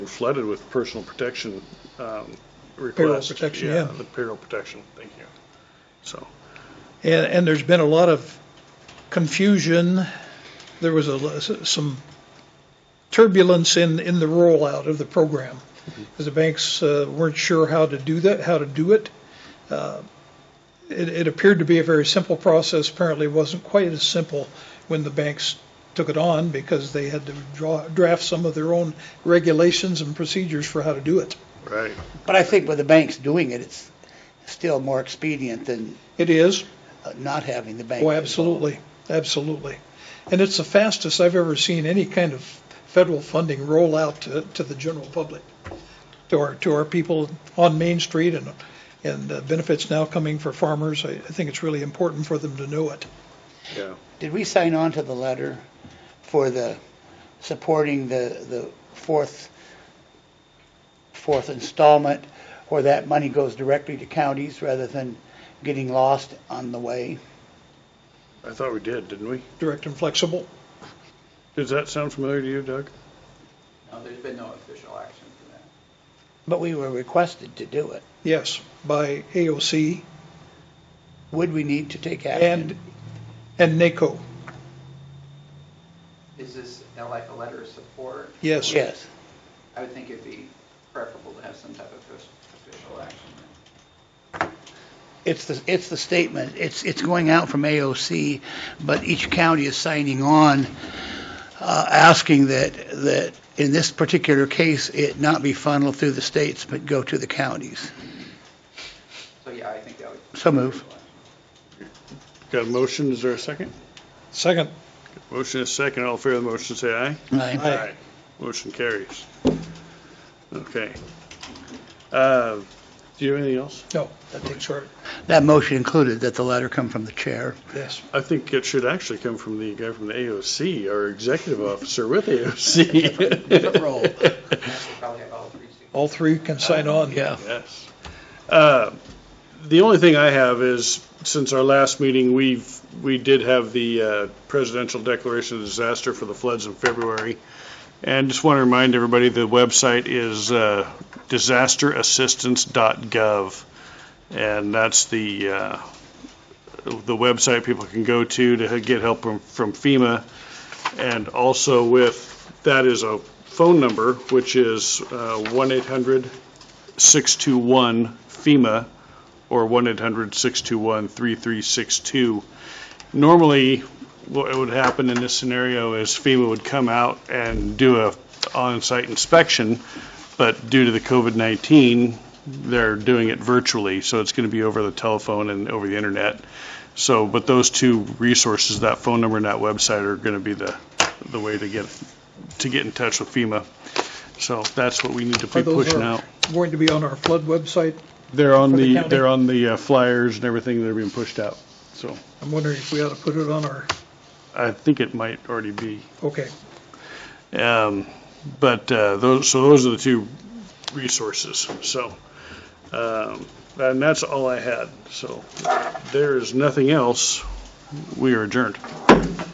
flooded with personal protection um, requests. protection, yeah. The payroll protection, thank you. So, And, and there's been a lot of confusion. There was a, some turbulence in, in the rollout of the program. Because the banks uh, weren't sure how to do that, how to do it. Uh, It, it appeared to be a very simple process. Apparently, it wasn't quite as simple when the banks took it on because they had to draw, draft some of their own regulations and procedures for how to do it. right, But I think with the banks doing it, it's still more expedient than It is, uh, not having the bank. Oh, involved. absolutely, absolutely. And it's the fastest I've ever seen any kind of federal funding roll out to, to the general public, to our, to our people on Main Street and, and uh, benefits now coming for farmers. I, I think it's really important for them to know it. yeah. Did we sign on to the letter for the, supporting the, the fourth, fourth installment, where that money goes directly to counties rather than getting lost on the way? I thought we did, didn't we? Direct and flexible. Does that sound familiar to you, Doug? No, there's been no official action for that. But we were requested to do it. Yes, by AOC Would we need to take and, action? and NACO. Is this uh, like a letter of support? Yes. Yes. I would think it'd be preferable to have some type of offic- official action. It's the, it's the statement, it's, it's going out from AOC, but each county is signing on, uh, asking that, that in this particular case, it not be funneled through the states, but go to the counties. So, yeah, I think that would. So move. Got a motion, is there a second? Second, Motion is second, all in favor of the motion, say aye. Aye. Motion carries. Okay. Uh, Do you have anything else? no, that takes care of it. That motion included that the letter come from the chair. Yes. I think it should actually come from the guy from the AOC, our executive officer with AOC. Different role. We'll probably have all three. signatures. All three can sign on. Yeah. Yes. Uh, The only thing I have is, since our last meeting, we've, we did have the uh, presidential declaration of disaster for the floods in February. And just want to remind everybody, the website is uh, disasterassistance.gov. And that's the, uh, the website people can go to to get help from from FEMA. And also with, that is a phone number, which is uh, 1 800 621 FEMA or 1-800-621-3362. Normally, what would happen in this scenario is FEMA would come out and do a on-site inspection, but due to the COVID-19, they're doing it virtually, so it's going to be over the telephone and over the internet. So, but those two resources, that phone number and that website are going to be the, the way to get, to get in touch with FEMA. So that's what we need to Are be those pushing our- out. Going to be on our flood website. They're on For the the, county? they're on the uh, flyers and everything that are being pushed out. So I'm wondering if we ought to put it on our, I think it might already be. okay. Um, But uh, those, so those are the two resources. So, um, and that's all I had. So there is nothing else. We are adjourned.